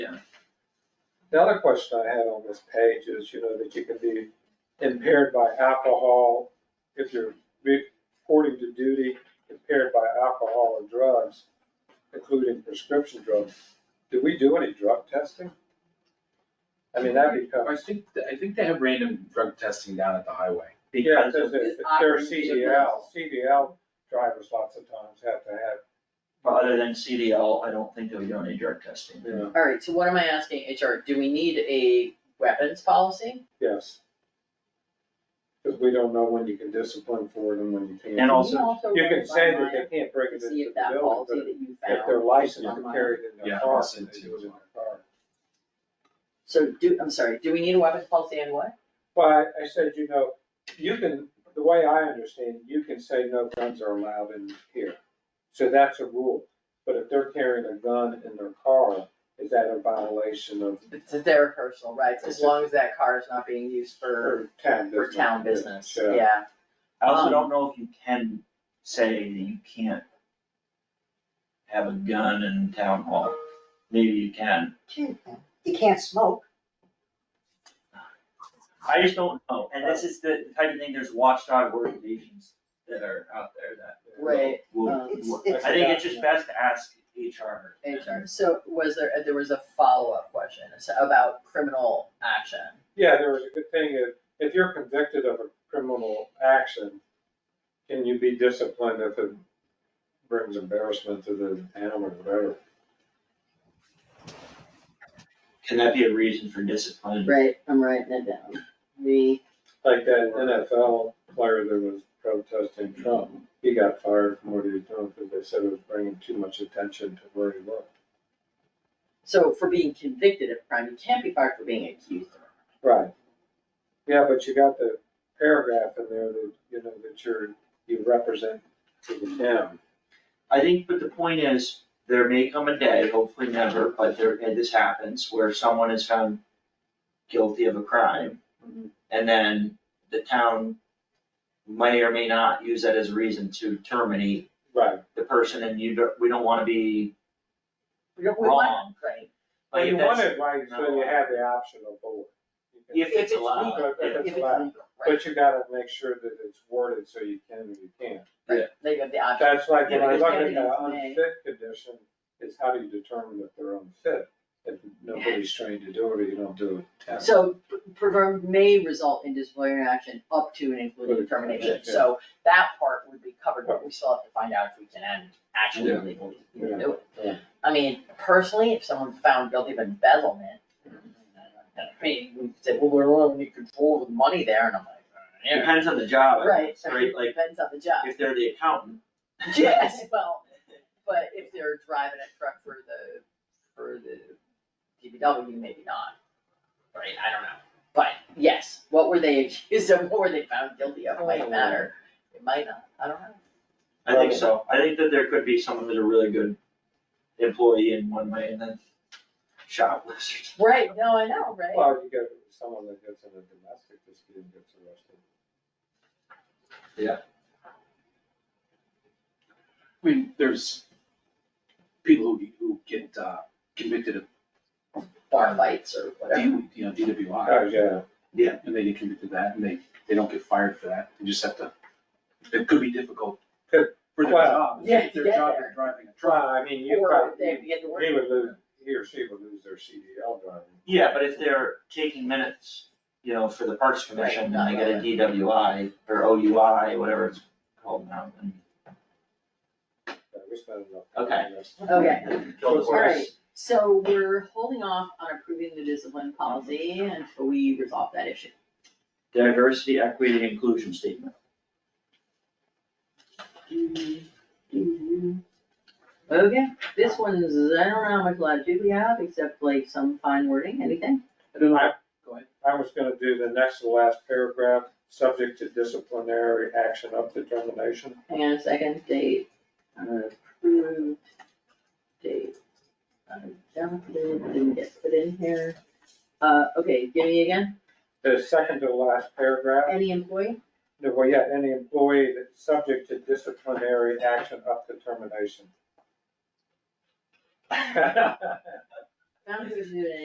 The other question I had on this page is, you know, that you can be impaired by alcohol if you're reporting to duty impaired by alcohol or drugs, including prescription drugs. Do we do any drug testing? I mean, that I becomes, think, I think they have random drug testing down at the highway. yeah, because because of if the they're operating CDL, CDL drivers lots of times have to have, But other than CDL, I don't think they'll do any drug testing. you know, Alright, so what am I asking HR, do we need a weapons policy? yes. Because we don't know when you can discipline for it and when you can't. And also- Can You can say that run it they can't by bring mine it to see into if the that building, policy but that you if they're found, licensed on to mine. carry it in Yeah, their I'll car, send they it to do it in you. their car. so do, I'm sorry, do we need a weapons policy and what? But I said, you know, you can, the way I understand, you can say no guns are allowed in here. So that's a rule. But if they're carrying a gun in their car, is that a violation of, It's their personal rights, as long as that car is not being used for, or town for business? town business, Yeah. yeah. I also Um, don't know if you can say that you can't have a gun in town hall. Maybe you can. You can't smoke. I just don't know. And this is the type of thing, there's watchdog organizations that are out there that Right, will. um, It's, will- it's, I think it's just best to ask HR. HR, so was there, there was a follow-up question it's about criminal action, Yeah, there was a good thing, if, if you're convicted of a criminal action, can you be disciplined if it brings embarrassment to the town or whatever? Can that be a reason for discipline? right, I'm writing it down, the. Like that NFL player that was protesting Trump, he got fired from what he was doing because they said it was bringing too much attention to where he worked. So for being convicted of crime, you can't be fired for being accused of it. Right. Yeah, but you got the paragraph in there that, you know, that you're, you represent to the town. I think, but the point is, there may come a day, hopefully never, but there, and this happens, where someone is found guilty of a crime. Mm-hmm. Mhm. And then the town may or may not use that as a reason to terminate Right. the person and you don't, we don't wanna be We don't, we want, wrong. right, Well, Like, you if that's- want it right, so you have the option of board. If If it's it's allowed, legal, yeah. if it's allowed. legal, right, But you gotta make sure that it's worded so you can and you can't. right, they have the option. That's like when I Uh, look Yeah, because at the everything's unfit condition, is how do you determine if they're unfit? If nobody's trained to do it or you don't do it. So proverb may result in disciplinary action up to and including Good. termination, Yeah. so that part would be covered, but we still have to find out if we can add- actually Yeah. legally Yeah. do it. Yeah. I mean, personally, if someone's found guilty of embezzlement, I mean, we say, well, we're only in control of the money there, and I'm like, It depends on the job, I right, guess, right, like, depends on the job. if they're the accountant. Yes, well, but if they're driving a truck for the, for the DPW, maybe not, right, I don't know. But yes, what were they accused of, what were they found guilty of, might matter, it might not, I don't know. I think so, I think that there could be someone that's a really good employee in one way and then shoplifters. Right, no, I know, right? Well, you get someone that gets in a domestic dispute and gets arrested. I mean, there's people who, who get uh, convicted of, Bar fights or whatever, D- you know, Oh, DWI. yeah, Uh, Yeah. And they get convicted of that, and they, they don't get fired for that, they just have to, it could be difficult Could- for their well, job, yeah, if their yeah. job is driving a truck. well, I mean, you or probably, they get the word. he would lose, he or she would lose their CDL driving. Yeah, but if they're taking minutes, you know, for the Parks Commission, and they get a DWI or OUI, whatever it's called now, then Yeah, We spend enough. Okay. Okay, kill the alright, horse. so we're holding off on approving the discipline policy until we resolve that issue. Diversity, equity, and inclusion statement. Mm-hmm. Okay, this one's, I don't know how much latitude we have, except like some fine wording, anything? And I, Go ahead. I was gonna do the next to last paragraph, subject to disciplinary action up to termination. Hang on a second, date, approved, date. uh, Jonathan didn't get put in here. Uh, okay, give me again, The second to last paragraph, any employee? that we had any employee that's subject to disciplinary action up to termination. Found who's doing it.